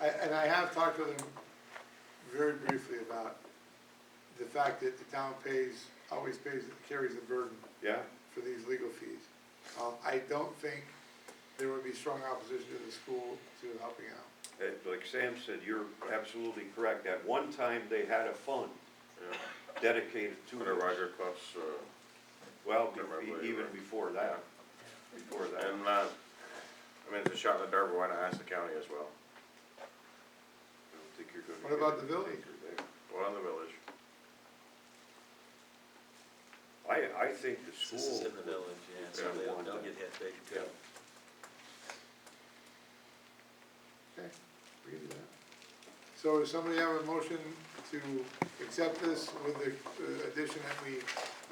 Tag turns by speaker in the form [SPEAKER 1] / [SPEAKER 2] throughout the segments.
[SPEAKER 1] and I have talked to them very briefly about the fact that the town pays, always pays, carries the burden
[SPEAKER 2] yeah,
[SPEAKER 1] for these legal fees. Um, I don't think there would be strong opposition to the school to helping out.
[SPEAKER 2] Uh, like Sam said, you're absolutely correct, at one time they had a fund
[SPEAKER 3] yeah.
[SPEAKER 2] dedicated to
[SPEAKER 3] Under
[SPEAKER 2] this.
[SPEAKER 3] Roger Clough's, uh,
[SPEAKER 2] Well, be-
[SPEAKER 3] Remember,
[SPEAKER 2] be-
[SPEAKER 3] right,
[SPEAKER 2] even
[SPEAKER 3] right.
[SPEAKER 2] before that, before that.
[SPEAKER 3] and, uh, I mean, it's a shot in the dark, but why not ask the county as well?
[SPEAKER 2] I don't think you're gonna
[SPEAKER 1] What
[SPEAKER 2] get
[SPEAKER 1] about the
[SPEAKER 2] anything
[SPEAKER 1] village?
[SPEAKER 2] through there.
[SPEAKER 3] What on the village?
[SPEAKER 2] I, I think the
[SPEAKER 4] This is
[SPEAKER 2] school,
[SPEAKER 4] in the village, yeah, so
[SPEAKER 2] Yeah,
[SPEAKER 4] they'll,
[SPEAKER 2] one
[SPEAKER 4] they'll
[SPEAKER 2] time.
[SPEAKER 4] get hit big too.
[SPEAKER 2] Yeah.
[SPEAKER 1] Okay, we can do that. So does somebody have a motion to accept this with the uh, addition that we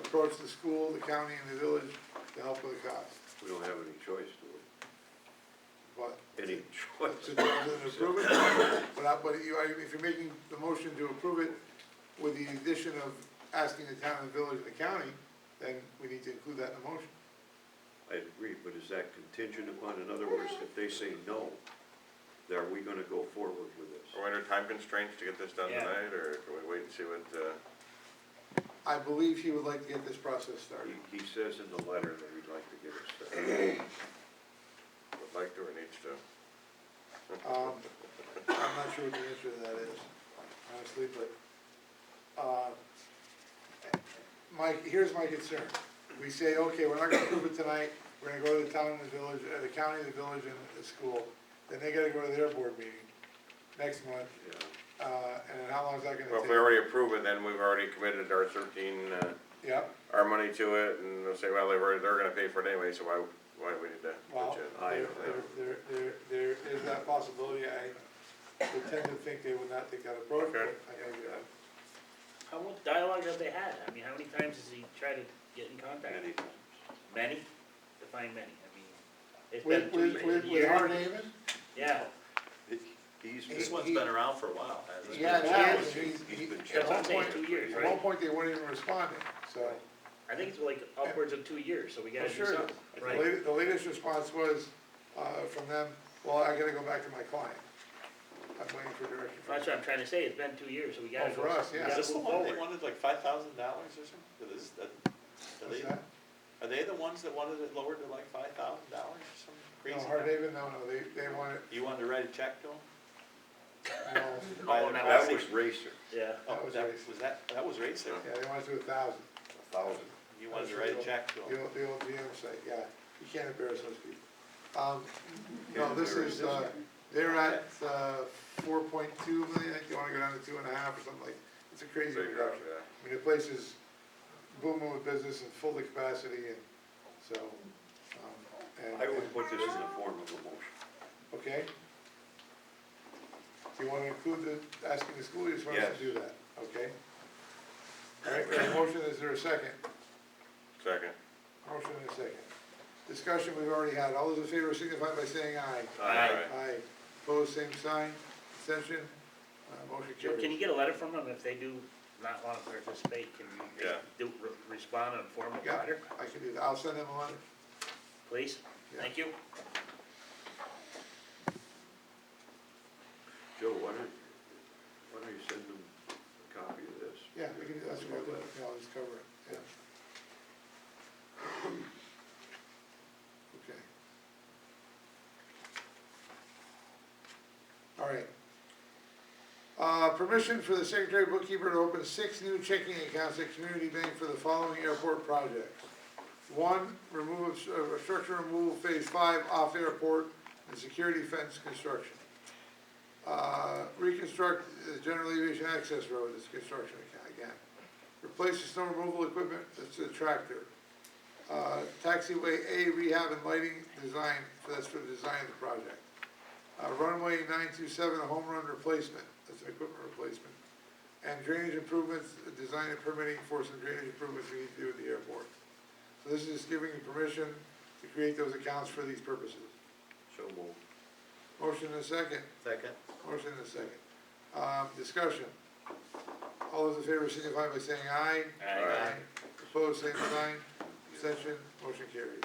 [SPEAKER 1] approach the school, the county, and the village to help with the cost?
[SPEAKER 2] we don't have any choice to
[SPEAKER 1] But,
[SPEAKER 2] it, any
[SPEAKER 1] to
[SPEAKER 2] choice.
[SPEAKER 1] approve it, but I, but you, I- if you're making the motion to approve it with the addition of asking the town, the village, and the county, then we need to include that in the motion.
[SPEAKER 2] I agree, but is that contingent upon, in other words, if they say no, then are we gonna go forward with this?
[SPEAKER 3] Are we under time constraints to get this done
[SPEAKER 5] Yeah.
[SPEAKER 3] tonight, or can we wait and see what, uh,
[SPEAKER 1] I believe he would like to get this process started.
[SPEAKER 2] He, he says in the letter that he'd like to get us uh, started.
[SPEAKER 3] would like to or needs to?
[SPEAKER 1] Um, I'm not sure what the answer to that is, honestly, but, uh, my, here's my concern. We say, okay, we're not gonna approve it tonight, we're gonna go to the town and the village, uh, the county, the village, and the school. Then they gotta go to their board meeting next month,
[SPEAKER 2] Yeah.
[SPEAKER 1] uh, and then how long is that
[SPEAKER 3] Well,
[SPEAKER 1] gonna
[SPEAKER 3] if
[SPEAKER 1] take?
[SPEAKER 3] we already approve it, then we've already committed our thirteen, uh,
[SPEAKER 1] Yep,
[SPEAKER 3] our money to it, and they'll say, well, they were, they're gonna pay for it anyway, so why, why do we need to?
[SPEAKER 1] well,
[SPEAKER 2] I
[SPEAKER 1] there,
[SPEAKER 2] don't know.
[SPEAKER 1] there, there, there is that possibility. I would tend to think they would not take that approach, but
[SPEAKER 3] Okay.
[SPEAKER 1] I think, uh,
[SPEAKER 5] How much dialogue have they had? I mean, how many times has he tried to get in contact?
[SPEAKER 2] Many times.
[SPEAKER 5] Many? Define many, I mean, it's been
[SPEAKER 1] with, with,
[SPEAKER 5] two
[SPEAKER 1] with, with
[SPEAKER 5] years.
[SPEAKER 1] Hardhaven?
[SPEAKER 5] Yeah,
[SPEAKER 4] This
[SPEAKER 2] He's
[SPEAKER 1] He-
[SPEAKER 2] been,
[SPEAKER 4] one's
[SPEAKER 1] he-
[SPEAKER 4] been around for a while, hasn't it?
[SPEAKER 1] Yeah, it has,
[SPEAKER 2] challenging.
[SPEAKER 1] he's,
[SPEAKER 2] He's
[SPEAKER 1] he,
[SPEAKER 2] been
[SPEAKER 1] at
[SPEAKER 5] that's what
[SPEAKER 1] one
[SPEAKER 5] I'm saying, two
[SPEAKER 1] point,
[SPEAKER 5] years,
[SPEAKER 1] at one
[SPEAKER 5] right?
[SPEAKER 1] point, they weren't even responding, so.
[SPEAKER 5] I think it's like upwards of two years, so we gotta do
[SPEAKER 1] Oh, Sure.
[SPEAKER 5] something,
[SPEAKER 1] The
[SPEAKER 5] Oh, right?
[SPEAKER 1] latest, the latest response was, uh, from them, well, I gotta go back to my client. I'm waiting for direction. from
[SPEAKER 5] That's what I'm trying to say, it's been two years, so we
[SPEAKER 1] Oh,
[SPEAKER 5] gotta go.
[SPEAKER 1] for us,
[SPEAKER 5] we
[SPEAKER 1] yeah.
[SPEAKER 5] gotta
[SPEAKER 6] Is this the
[SPEAKER 5] move
[SPEAKER 6] one they
[SPEAKER 5] forward.
[SPEAKER 6] wanted like five thousand dollars or something? Is this, that, are
[SPEAKER 1] What's
[SPEAKER 6] they,
[SPEAKER 1] that?
[SPEAKER 6] are they the ones that wanted it lowered to like five thousand dollars or some crazy?
[SPEAKER 1] No,
[SPEAKER 6] number?
[SPEAKER 1] Hardhaven, no, no, they, they want it,
[SPEAKER 6] You wanted to write a check to them?
[SPEAKER 1] no,
[SPEAKER 5] Oh, and
[SPEAKER 2] that was Racer,
[SPEAKER 5] Yeah,
[SPEAKER 6] Oh,
[SPEAKER 1] That was
[SPEAKER 6] that,
[SPEAKER 1] raised.
[SPEAKER 6] was that, that was raised there?
[SPEAKER 1] yeah, they want it to a thousand,
[SPEAKER 2] a thousand.
[SPEAKER 6] You wanted to write a check to
[SPEAKER 1] the
[SPEAKER 6] them?
[SPEAKER 1] old, the old GM site, yeah, you can't embarrass those people. Um, no, this is, uh, they're at, uh, four point two million, I think they wanna go down to two and a half or something like, it's a crazy
[SPEAKER 3] Big round,
[SPEAKER 1] reduction.
[SPEAKER 3] yeah.
[SPEAKER 1] I mean, the place is booming with business and full to capacity and so, um, and,
[SPEAKER 2] I would put this in the form of a motion.
[SPEAKER 1] okay? Do you wanna include the, asking the school, or you just want us
[SPEAKER 2] Yes.
[SPEAKER 1] to do that, okay? All right, we have a motion, is there a second?
[SPEAKER 3] Second.
[SPEAKER 1] Motion and a second. Discussion we've already had, all those in favor signify by saying aye.
[SPEAKER 5] Aye.
[SPEAKER 1] Aye, opposed, same sign, Extension. uh, motion
[SPEAKER 5] Joe, can
[SPEAKER 1] carries.
[SPEAKER 5] you get a letter from them if they do not wanna participate, can you
[SPEAKER 3] Yeah.
[SPEAKER 5] do, re- respond in a formal
[SPEAKER 1] Yeah,
[SPEAKER 5] letter,
[SPEAKER 1] I can do that, I'll send them a letter.
[SPEAKER 5] please?
[SPEAKER 1] Yeah.
[SPEAKER 5] Thank you.
[SPEAKER 2] Joe, why don't, why don't you send them a copy of this?
[SPEAKER 1] Yeah, we can, that's what I'll do, yeah, I'll just cover it, yeah. Okay. All right. Uh, permission for the secretary bookkeeper to open six new checking accounts at Community Bank for the following airport projects. One, remove, of- uh, structure removal phase five off airport and security fence construction. Uh, reconstruct the general aviation access road, this construction account again. Replace the snow removal equipment, that's the tractor. Uh, taxiway A rehab and lighting design, that's for the design of the project. Uh, runway nine two seven, a home run replacement, that's an equipment replacement. And drainage improvements, uh, design and permitting for some drainage improvements we need to do at the airport. So this is giving you permission to create those accounts for these purposes.
[SPEAKER 2] So moved.
[SPEAKER 1] Motion and a second.
[SPEAKER 4] Second?
[SPEAKER 1] Motion and a second. Um, discussion. All those in favor signify by saying aye.
[SPEAKER 5] Aye.
[SPEAKER 1] Opposed, same sign. Abstention, motion carries.